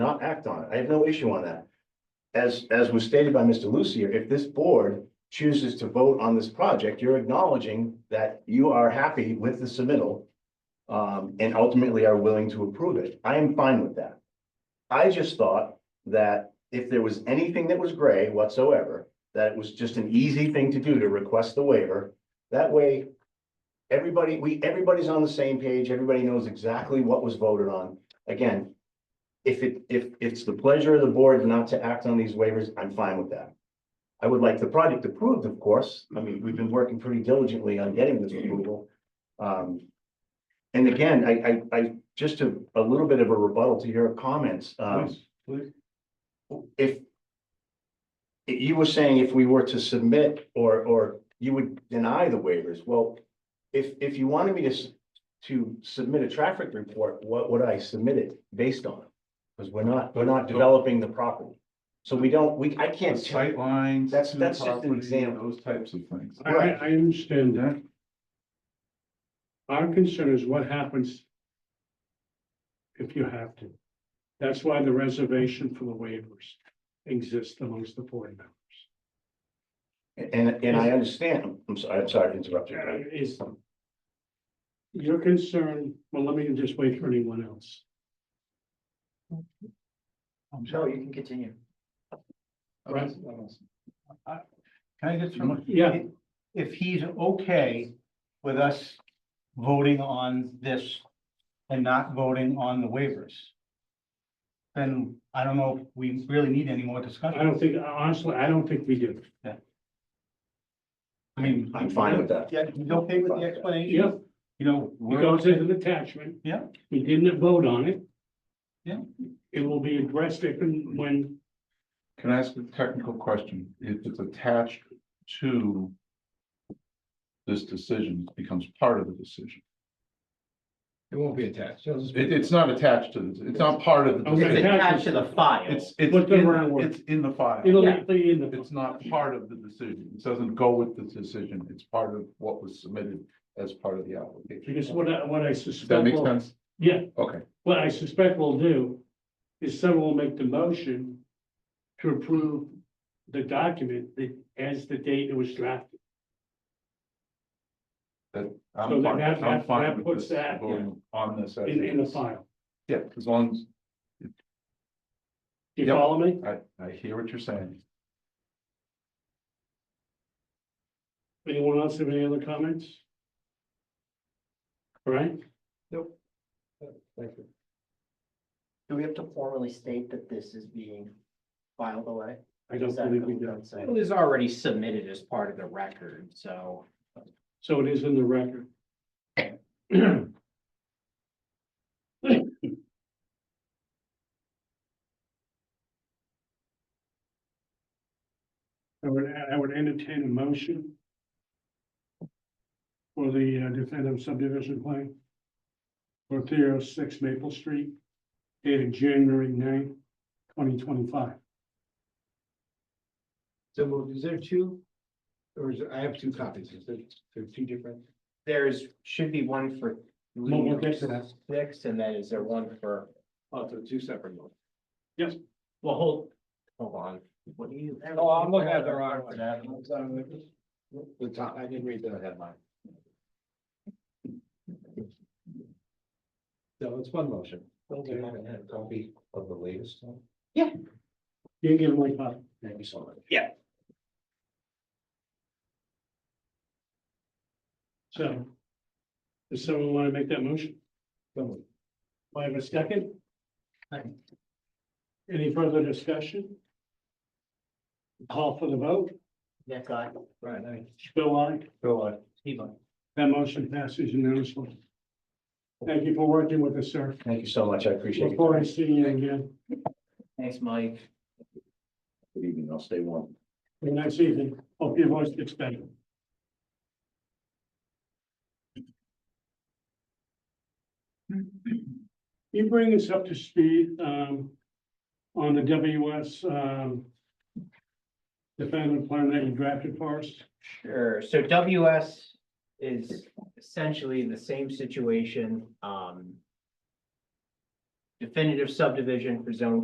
not act on it. I have no issue on that. As, as was stated by Mr. Lucier, if this board chooses to vote on this project, you're acknowledging that you are happy with the submittal um, and ultimately are willing to approve it. I am fine with that. I just thought that if there was anything that was gray whatsoever, that it was just an easy thing to do to request the waiver. That way, everybody, we, everybody's on the same page. Everybody knows exactly what was voted on. Again, if it, if it's the pleasure of the board not to act on these waivers, I'm fine with that. I would like the project approved, of course. I mean, we've been working pretty diligently on getting this approval. Um, and again, I, I, I, just a, a little bit of a rebuttal to your comments, um, if you were saying if we were to submit or, or you would deny the waivers, well, if, if you wanted me to, s- to submit a traffic report, what would I submit it based on? Because we're not, we're not developing the property. So we don't, we, I The can't, tell- sight lines. That's- to the that's just an property, example. Those types of things. I, I I understand that. Our concern is what happens if you have to. That's why the reservation for the waivers exists amongst the board members. and, and I understand, I'm sorry, I'm sorry to interrupt you. Uh, Is your concern, well, let me just wait for anyone else. No, you can continue. Right. Uh, Can I just, remind- Yeah, if he's okay with us voting on this and not voting on the waivers, then I don't know if we really need any more I discussion. don't think, honestly, I don't think we do. I mean, I'm fine with that. yeah, he's okay with the explanation? Yeah, You know, it we're, goes as an attachment. Yeah. We didn't vote on it. Yeah. It will be addressed if and when, Can I ask a technical question? If it's attached to this decision, it becomes part of the decision. It won't be attached. It'll just be- It, it's not attached to, the- it's not part of the, Okay. decision. it's attached to the file. it's, it's, What's the wrong in- word? it's in the file. it'll Yeah. be in the. It's not part of the decision. It doesn't go with the decision. It's part of what was submitted as part of the application. Because what I, what I Does suspect. that make will- sense? Yeah, Okay. what I suspect we'll do is someone will make the motion to approve the document that as the date it was drafted. So I'm then fine, that- I'm that- fine that with puts this, that, voting on this. as In, in the is. file. Yeah, as long as, Do you Yep. follow me? I, I hear what you're saying. Anyone else have any other comments? All right, Thank you. Do we have to formally state that this is being filed away? I don't Is that believe we what do. I'm It saying? was already submitted as part of the record, so. So it is in the record. I would, I would entertain a motion for the uh, definitive subdivision plan for three oh six Maple Street dated January 9th, twenty twenty-five. So moved. is there two? Or is, I have two copies. Is there, there are two different? There's, should be one for We'll we'll get to that. six, and then is there one for, Oh, so two separate ones. well, hold, hold on. What do you? Oh, I'm looking at the wrong one. I'm sorry. The top, I didn't read the headline. So it's one motion. Do you have a copy of the latest one? You give my copy. Thank you so much. So. Does someone want to make that motion? So moved. Do I have a second? Any further discussion? Call for the vote. Nick, I, Right, I, Bill, aye. Bill, I. That motion passes unanimously. Thank you for working with us, sir. Thank you so much. I appreciate Look it. forward to seeing you again thanks, Mike. Good evening. I'll stay warm. the next evening. Hope your voice gets better. You bring us up to speed, um, on the WS, um, defendant plan that you drafted for us. Sure, so WS is essentially the same situation, um. Definitive subdivision for zone